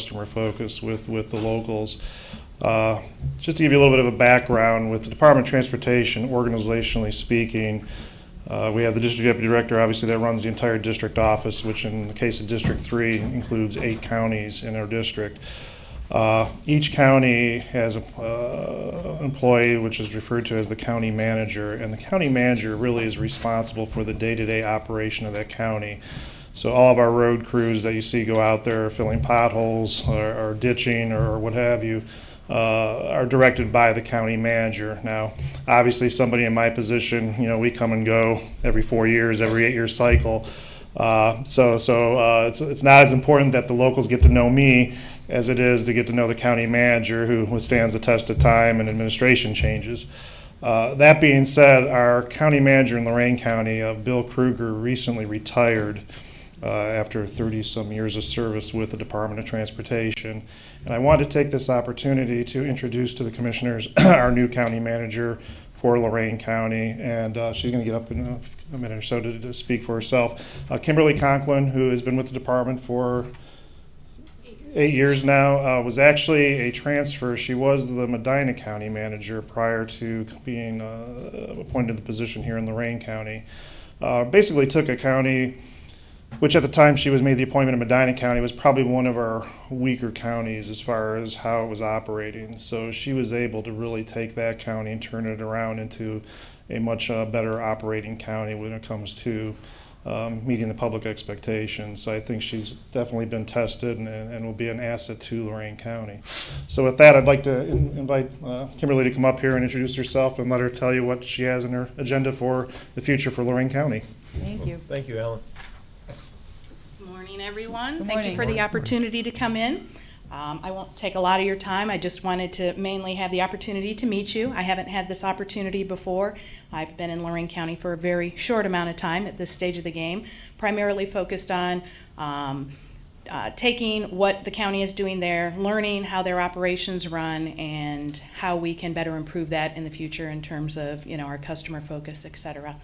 customer focus with, with the locals. Uh, Just to give you a little bit of a background, with the Department of Transportation, organizationally speaking, uh, we have the district deputy director, obviously, that runs the entire district office, which in the case of District Three includes eight counties in our district. Uh, Each county has a, uh, an employee, which is referred to as the county manager, and the county manager really is responsible for the day-to-day operation of that county. So all of our road crews that you see go out there filling potholes or or ditching or what have you uh, are directed by the county manager. Now, obviously, somebody in my position, you know, we come and go every four years, every eight-year cycle. Uh, So, so uh, it's, it's not as important that the locals get to know me as it is to get to know the county manager who withstands the test of time and administration changes. Uh, That being said, our county manager in Lorain County, uh, Bill Kruger, recently retired uh, after 30-some years of service with the Department of Transportation. And I wanted to take this opportunity to introduce to the commissioners our new county manager for Lorain County, and uh, she's going to get up in a- a minute or so to to speak for herself. Uh, Kimberly Conklin, who has been with the department for eight years now, uh, was actually a transfer. She was the Medina County manager prior to being uh, appointed to the position here in Lorain County. Uh, Basically took a county, which at the time she was made the appointment in Medina County was probably one of our weaker counties as far as how it was operating. So she was able to really take that county and turn it around into a much uh, better operating county when it comes to um, meeting the public expectations. So I think she's definitely been tested and, and will be an asset to Lorain County. So with that, I'd like to in- invite uh, Kimberly to come up here and introduce herself and let her tell you what she has in her agenda for the future for Lorain County. Thank you. Thank you, Alan. Morning, everyone. Good Thank you for morning. the opportunity to come in. Um, I won't take a lot of your time. I just wanted to mainly have the opportunity to meet you. I haven't had this opportunity before. I've been in Lorraine County for a very short amount of time at this stage of the game, primarily focused on um, uh, taking what the county is doing there, learning how their operations run, and how we can better improve that in the future in terms of, you know, our customer focus, et cetera.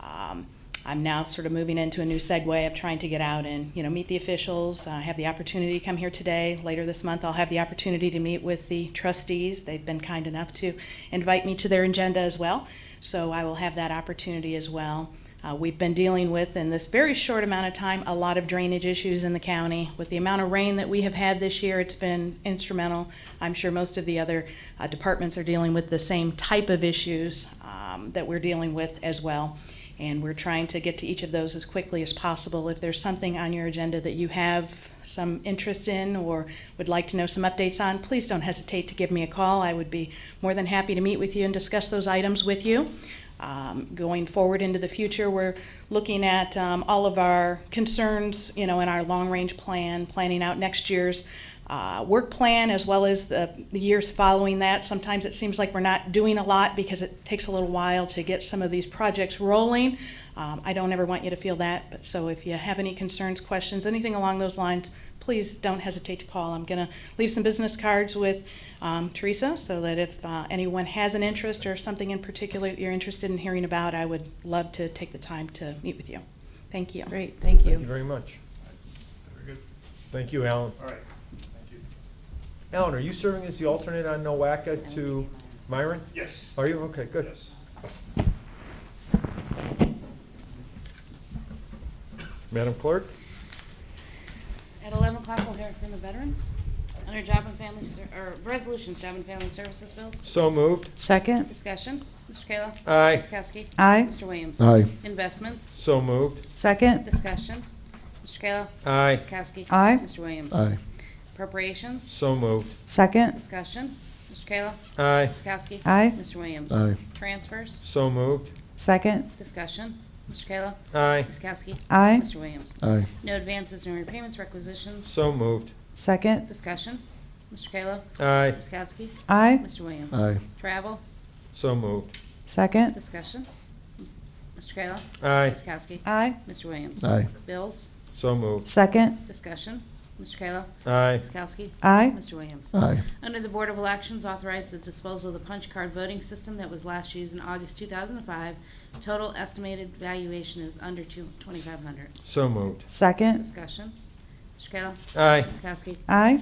Um, I'm now sort of moving into a new segue of trying to get out and, you know, meet the officials. I have the opportunity to come here today. Later this month, I'll have the opportunity to meet with the trustees. They've been kind enough to invite me to their agenda as well, so I will have that opportunity as well. Uh, We've been dealing with, in this very short amount of time, a lot of drainage issues in the county. With the amount of rain that we have had this year, it's been instrumental. I'm sure most of the other uh, departments are dealing with the same type of issues um, that we're dealing with as well. And we're trying to get to each of those as quickly as possible. If there's something on your agenda that you have some interest in or would like to know some updates on, please don't hesitate to give me a call. I would be more than happy to meet with you and discuss those items with you. Um, Going forward into the future, we're looking at um, all of our concerns, you know, in our long-range plan, planning out next year's uh, work plan as well as the, the years following that. Sometimes it seems like we're not doing a lot because it takes a little while to get some of these projects rolling. Um, I don't ever want you to feel that, but so if you have any concerns, questions, anything along those lines, please don't hesitate to call. I'm going to leave some business cards with um, Teresa so that if uh, anyone has an interest or something in particular that you're interested in hearing about, I would love to take the time to meet with you. Thank you. Great, thank Thank you you. very much. Very good. Thank you, Alan. All right. Thank you. Alan, are you serving as the alternate on Nowaka to Myron? Yes. Are you? Okay, good. Yes. Madam Clerk? At 11 o'clock, we'll hear from the veterans. Under Job and Family, Ser- or Resolutions, Job and Family Services Bills. So moved. Second, Discussion, Mr. Kayla. Aye. Ms. Kowski. Aye. Mr. Williams. Aye. Investments, So moved. second, discussion, Mr. Kayla. Aye. Ms. Kowski. Aye. Mr. Williams. Aye. Appropriations, So moved. second, discussion, Mr. Kayla. Aye. Ms. Kowski. Aye. Mr. Williams. Aye. Transfers, So moved. second, discussion, Mr. Kayla. Aye. Ms. Kowski. Aye. Mr. Williams. Aye. No advances, no repayments, requisitions, So moved. second, discussion, Mr. Kayla. Aye. Ms. Kowski. aye, Mr. Williams. Aye. Travel, So moved. second, Discussion. Mr. Kayla. Aye. Ms. Kowski. aye, Mr. Williams. Aye. Bills. So moved. second, Discussion. Mr. Kayla. Aye. Ms. Kowski. aye, Mr. Williams. Aye. Under the Board of Elections, authorize the disposal of the punch card voting system that was last used in August 2005. Total estimated valuation is under two- 2,500. So moved. second, Discussion. Mr. Mr. Kayla? Aye. Ms. Kowski? Aye.